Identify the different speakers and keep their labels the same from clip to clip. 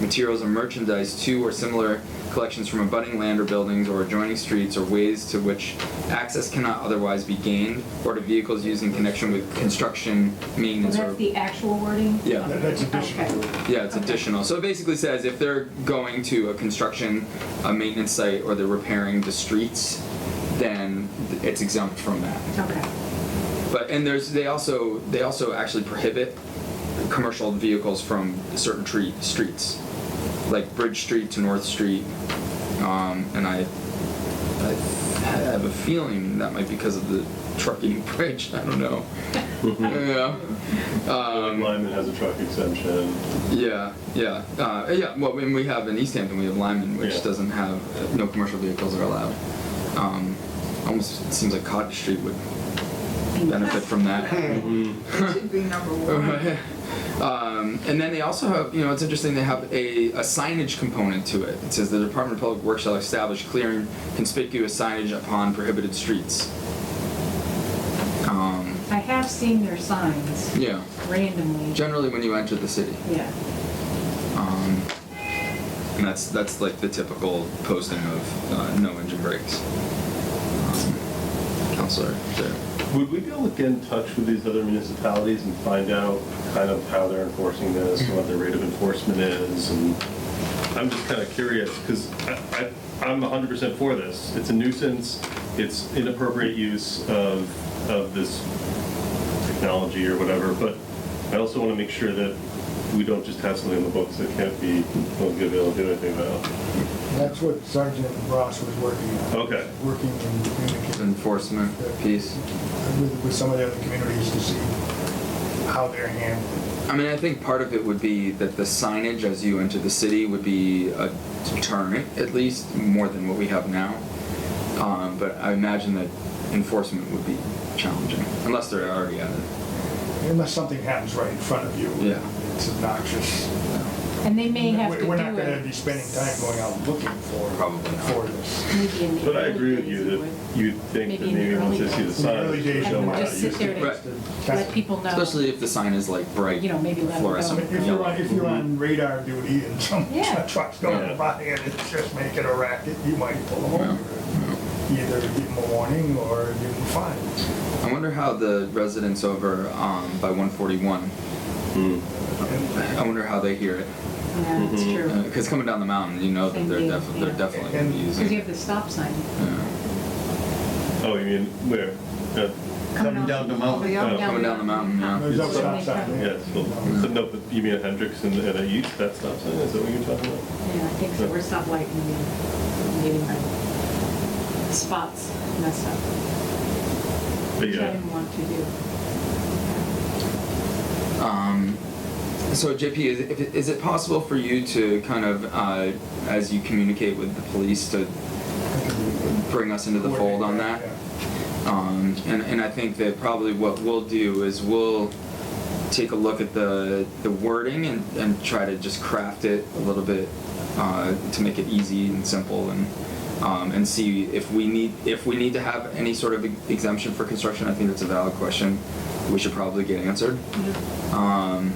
Speaker 1: materials and merchandise to or similar collections from abutting land or buildings or adjoining streets or ways to which access cannot otherwise be gained or to vehicles used in connection with construction,
Speaker 2: Well,
Speaker 1: maintenance, or
Speaker 2: that's the actual wording?
Speaker 1: Yeah.
Speaker 3: That- That's additional.
Speaker 2: Okay.
Speaker 1: Yeah, it's
Speaker 2: Okay.
Speaker 1: additional. So it basically says if they're going to a construction, a maintenance site, or they're repairing the streets, then th- it's exempt from that.
Speaker 2: Okay.
Speaker 1: But and there's they also they also actually prohibit commercial vehicles from certain tree, streets, like Bridge Street to North Street, um, and I, I have a feeling that might be because of the trucking bridge. I don't know. yeah. Um,
Speaker 4: Lyman has a truck exemption.
Speaker 1: Yeah, yeah, uh, yeah. Well, when we have in East Hampton, we have Lyman, which
Speaker 4: Yeah.
Speaker 1: doesn't have uh, no commercial vehicles are allowed. Um, almost seems like Cottage Street would benefit from that.
Speaker 5: It should be number one.
Speaker 1: um, and then they also have, you know, it's interesting. They have a, a signage component to it. It says the Department of Public Works shall establish clear and conspicuous signage upon prohibited streets. Um,
Speaker 2: I have seen their signs
Speaker 1: yeah,
Speaker 2: randomly.
Speaker 1: generally when you enter the city.
Speaker 2: Yeah.
Speaker 1: Um, and that's that's like the typical posting of uh, no engine brakes. Um, counselor, there.
Speaker 4: Would we be able to get in touch with these other municipalities and find out kind of how they're enforcing this, and what their rate of enforcement is? And I'm just kind of curious, because I, I, I'm 100% for this. It's a nuisance, it's inappropriate use of, of this technology or whatever, but I also want to make sure that we don't just have something in the books that can't be, won't be able to do anything about.
Speaker 3: That's what Sergeant Ross was working on.
Speaker 4: Okay.
Speaker 3: Working and communicating
Speaker 1: Enforcement piece.
Speaker 3: with, with some of the other communities to see how they're handling.
Speaker 1: I mean, I think part of it would be that the signage as you enter the city would be a deterrent, at least more than what we have now. Um, but I imagine that enforcement would be challenging, unless they're already at it.
Speaker 3: it. Unless something happens right in front of you.
Speaker 1: Yeah.
Speaker 3: It's obnoxious.
Speaker 2: And they may have
Speaker 3: We're-
Speaker 2: to do it.
Speaker 3: We're not gonna be spending time going out looking for.
Speaker 1: Probably not.
Speaker 3: For this.
Speaker 2: Maybe in the
Speaker 4: But I
Speaker 2: early
Speaker 4: agree with
Speaker 2: days
Speaker 4: you
Speaker 2: would.
Speaker 4: that you'd think that
Speaker 2: Maybe in the
Speaker 4: maybe once
Speaker 2: early
Speaker 4: they see the
Speaker 2: days.
Speaker 3: In the
Speaker 4: sign,
Speaker 3: early days,
Speaker 4: they
Speaker 3: you
Speaker 4: know
Speaker 2: And
Speaker 3: might
Speaker 4: how
Speaker 2: just
Speaker 4: to
Speaker 2: sit
Speaker 4: use
Speaker 2: there
Speaker 4: it.
Speaker 1: Right.
Speaker 2: and let people know.
Speaker 1: Especially if the sign is like bright,
Speaker 2: You know, maybe let 'em
Speaker 3: I
Speaker 1: fluorescent
Speaker 3: mean, If you're
Speaker 1: yellow.
Speaker 3: on, if you're
Speaker 1: Mm-hmm.
Speaker 3: on radar duty and some
Speaker 2: Yeah.
Speaker 3: truck's
Speaker 4: Yeah.
Speaker 3: going by and it's just making a racket, you might pull them
Speaker 1: Yeah.
Speaker 3: over. Either give them a warning or give them fines.
Speaker 1: I wonder how the residents over um, by 141.
Speaker 4: Hmm.
Speaker 1: I wonder how they hear it.
Speaker 2: Yeah, that's
Speaker 4: Mm-hmm.
Speaker 2: true.
Speaker 1: Because coming down the mountain, you know that they're, def- they're definitely going to be
Speaker 2: Because you
Speaker 1: using.
Speaker 2: have the stop sign.
Speaker 1: Yeah.
Speaker 4: Oh, you mean where? Uh,
Speaker 2: Coming down the mountain.
Speaker 4: Oh,
Speaker 1: coming down the mountain, yeah.
Speaker 3: There's no
Speaker 4: It's-
Speaker 3: stop sign there.
Speaker 4: Yes, well, so no, but you mean at Hendricks and and at East, that stop sign, is that what you're talking about?
Speaker 2: Yeah, I think so. We're stoplight and getting my spots messed up.
Speaker 4: But
Speaker 2: Which I
Speaker 4: yeah,
Speaker 2: didn't want to do.
Speaker 1: Um, so JP, is it, if- is it possible for you to kind of, uh, as you communicate with the police, to bring us into the fold on that? Um, and, and I think that probably what we'll do is we'll take a look at the, the wording and, and try to just craft it a little bit uh, to make it easy and simple and um, and see if we need if we need to have any sort of e-, exemption for construction. I think that's a valid question. We should probably get answered um,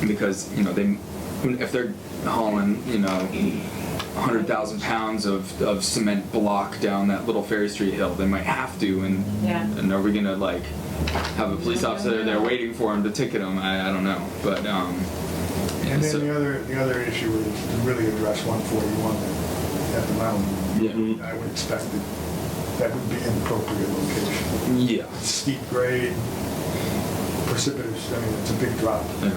Speaker 1: because you know they if they're hauling you know 100,000 pounds of, of cement block down that little Ferry Street hill, they might have to and
Speaker 2: Yeah.
Speaker 1: and are we gonna like have a police
Speaker 2: Yeah,
Speaker 1: officer
Speaker 2: yeah.
Speaker 1: there waiting for him to ticket him? I, I don't know, but um, yeah,
Speaker 3: And
Speaker 1: so-
Speaker 3: then the other, the other issue is to really address 141 at the
Speaker 1: Yeah.
Speaker 3: mountain. I would expect that that would be an appropriate location.
Speaker 1: yeah,
Speaker 3: Steep grade, precipitous, I mean, it's a big drop.
Speaker 1: yeah,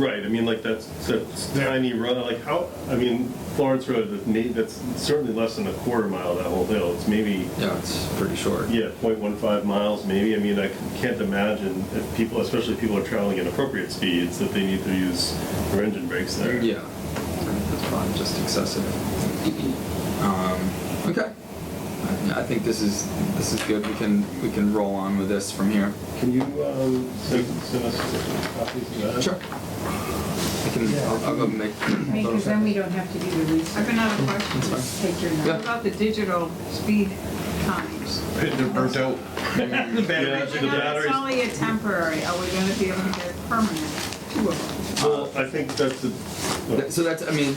Speaker 4: right, I mean, like, that's, that's tiny run, like, how, I mean, Florence Road, that may- that's certainly less than a quarter mile, that whole hill, it's maybe,
Speaker 1: yeah, it's pretty short.
Speaker 4: yeah, 0.15 miles, maybe, I mean, I can't imagine if people, especially if people are traveling at appropriate speeds, that they need to use their engine brakes there.
Speaker 1: Yeah, that's probably just excessive. Um, okay, I, I think this is this is good. We can we can roll on with this from here.
Speaker 4: Can you um, send send us copies of that?
Speaker 1: Sure. I can. I'll, I'll go make.
Speaker 2: Because then we don't have to do the
Speaker 5: I can
Speaker 2: research.
Speaker 5: have a question.
Speaker 1: That's fine.
Speaker 2: Take your
Speaker 5: What
Speaker 2: number.
Speaker 5: about the digital speed times?
Speaker 6: They're burnt out.
Speaker 4: The
Speaker 5: I know
Speaker 4: batteries.
Speaker 5: It's only a temporary, are we gonna be able to get permanent, two of them?
Speaker 7: Well, I think that's a.
Speaker 4: Th- So that's, I mean,